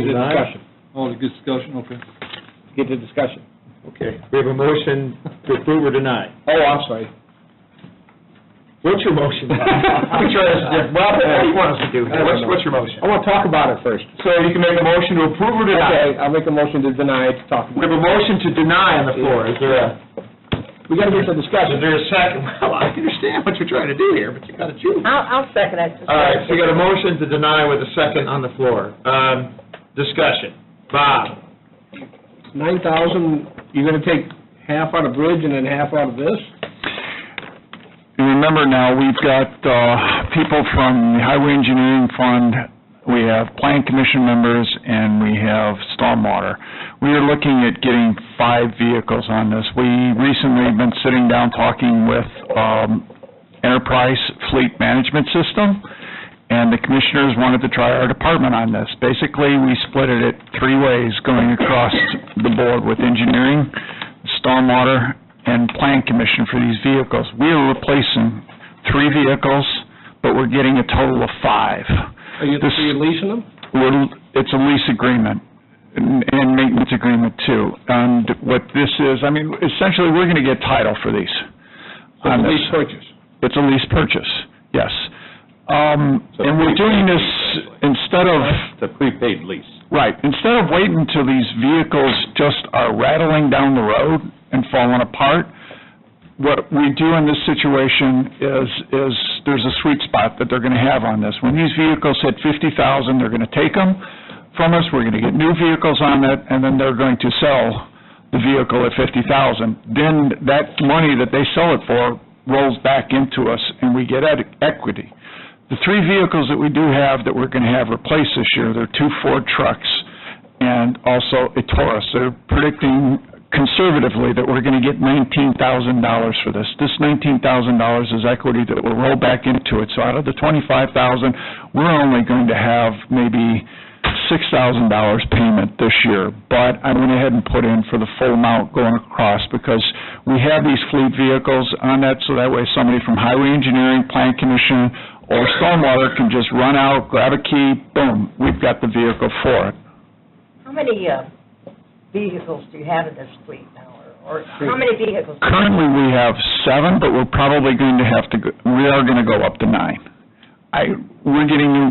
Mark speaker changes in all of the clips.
Speaker 1: Is it
Speaker 2: Design?
Speaker 1: discussion? Oh, it's a discussion, okay.
Speaker 2: Get to discussion. Okay, we have a motion to approve or deny. Oh, I'm sorry. What's your motion?
Speaker 3: I'm sure that's different. Well, what do you want us to do here? Uh, What's- what's your motion?
Speaker 2: I want to talk about it first.
Speaker 3: So you can make a motion to approve or deny.
Speaker 2: Okay, I'll make a motion to deny it, to talk
Speaker 3: We have
Speaker 2: about it.
Speaker 3: a motion to deny on the floor. Is there a,
Speaker 2: We gotta get to
Speaker 3: is
Speaker 2: discussion.
Speaker 3: there a second? Well, I understand what you're trying to do here, but you gotta choose.
Speaker 4: I'll, I'll second it.
Speaker 3: All right, so we got a motion to deny with a second on the floor. Um, discussion. Bob?
Speaker 2: Nine thousand, you're gonna take half out of bridge and then half out of this?
Speaker 5: And remember now, we've got uh, people from the Highway Engineering Fund, we have Plan Commission members, and we have Stormwater. We are looking at getting five vehicles on this. We recently have been sitting down talking with um, Enterprise Fleet Management System, and the commissioners wanted to try our department on this. Basically, we split it at three ways, going across the board with engineering, stormwater, and plan commission for these vehicles. We are replacing three vehicles, but we're getting a total of five.
Speaker 2: Are you,
Speaker 5: This-
Speaker 2: are you leasing them?
Speaker 5: We're- It's a lease agreement and and maintenance agreement too. And what this is, I mean, essentially, we're going to get title for these.
Speaker 2: Or
Speaker 5: on this.
Speaker 2: lease purchase?
Speaker 5: It's a lease purchase, yes. Um, And we're doing this instead of... It's a prepaid lease. Right. Instead of waiting till these vehicles just are rattling down the road and falling apart, what we do in this situation is, is there's a sweet spot that they're going to have on this. When these vehicles hit 50,000, they're going to take them from us, we're going to get new vehicles on it, and then they're going to sell the vehicle at 50,000. Then that money that they sell it for rolls back into us, and we get ed- equity. The three vehicles that we do have that we're going to have replaced this year, they're two Ford trucks and also a Taurus. They're predicting conservatively that we're going to get $19,000 for this. This $19,000 is equity that will roll back into it. So out of the 25,000, we're only going to have maybe $6,000 payment this year, but I went ahead and put in for the full amount going across because we have these fleet vehicles on that, so that way somebody from Highway Engineering, Plan Commission, or Stormwater can just run out, grab a key, boom, we've got the vehicle for it.
Speaker 4: How many uh, vehicles do you have in this fleet now, or or how many vehicles?
Speaker 5: Currently, we have seven, but we're probably going to have to, go- we are going to go up to nine. I, we're getting new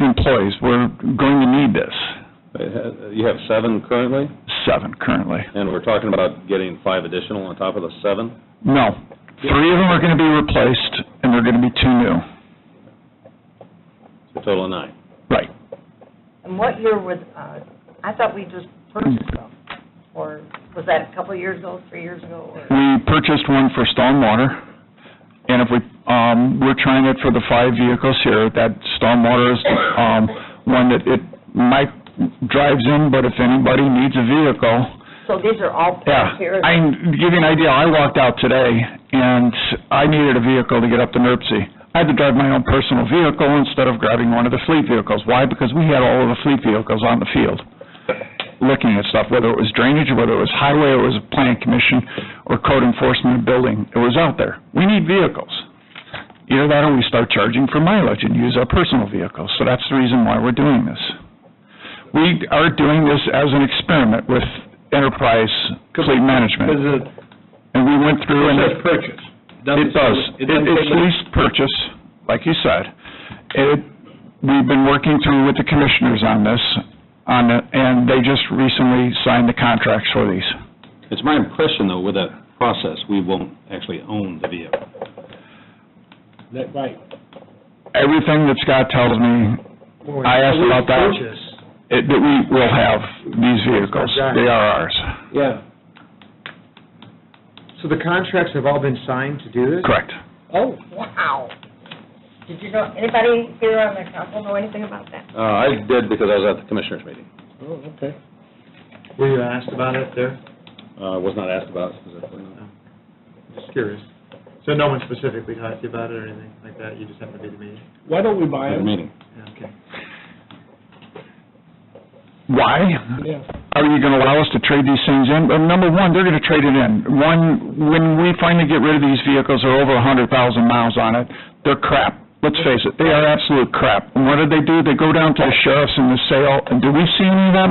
Speaker 5: employees, we're going to need this,
Speaker 6: You have seven currently,
Speaker 5: seven currently.
Speaker 6: and we're talking about getting five additional on top of the seven?
Speaker 5: No. Three of them are going to be replaced, and they're going to be two new.
Speaker 6: So total of nine.
Speaker 5: Right.
Speaker 4: And what year was, uh, I thought we just purchased them, or was that a couple of years ago, three years ago? or-
Speaker 5: We purchased one for stormwater, and if we, um, we're trying it for the five vehicles here, that stormwater is, um, one that it might drives in, but if anybody needs a vehicle,
Speaker 4: So these are all
Speaker 5: Yeah,
Speaker 4: parked here?
Speaker 5: I can give you an idea, I walked out today, and I needed a vehicle to get up to NERC. I had to drive my own personal vehicle instead of grabbing one of the fleet vehicles. Why? Because we had all of the fleet vehicles on the field, looking at stuff, whether it was drainage, whether it was highway, or it was a plan commission, or code enforcement building, it was out there. We need vehicles. Either that, or we start charging for mileage and use our personal vehicles, so that's the reason why we're doing this. We are doing this as an experiment with Enterprise Fleet
Speaker 2: Because
Speaker 5: Management,
Speaker 2: it
Speaker 5: and we went through and...
Speaker 2: says purchase.
Speaker 5: It does. It-
Speaker 2: doesn't
Speaker 5: It's
Speaker 2: say-
Speaker 5: lease purchase, like you said. It, we've been working through with the commissioners on this, on, it, and they just recently signed the contracts for these.
Speaker 6: It's my impression, though, with that process, we won't actually own the vehicle.
Speaker 2: That- Right.
Speaker 5: Everything that Scott tells me, I asked about that, it- that we will have these vehicles. They are ours.
Speaker 2: Yeah.
Speaker 3: So the contracts have all been signed to do this?
Speaker 5: Correct.
Speaker 2: Oh,
Speaker 4: Wow. Did you know, anybody here on the council know anything about that?
Speaker 6: Uh, I did because I was at the commissioners' meeting.
Speaker 2: oh, okay.
Speaker 3: Were you asked about it there?
Speaker 6: Uh, was not asked about it specifically. no.
Speaker 3: Just curious. So no one specifically talked to you about it or anything like that? You just happened to be at the meeting?
Speaker 2: Why don't we buy
Speaker 6: At the
Speaker 2: them?
Speaker 6: meeting.
Speaker 3: Yeah, okay.
Speaker 5: Why?
Speaker 2: Yeah.
Speaker 5: are you going to allow us to trade these things in? Well, number one, they're going to trade it in. One, when we finally get rid of these vehicles, they're over a hundred thousand miles on it, they're crap. let's face it, they are absolute crap. And what do they do? They go down to the sheriffs and the sale, and do we see any of that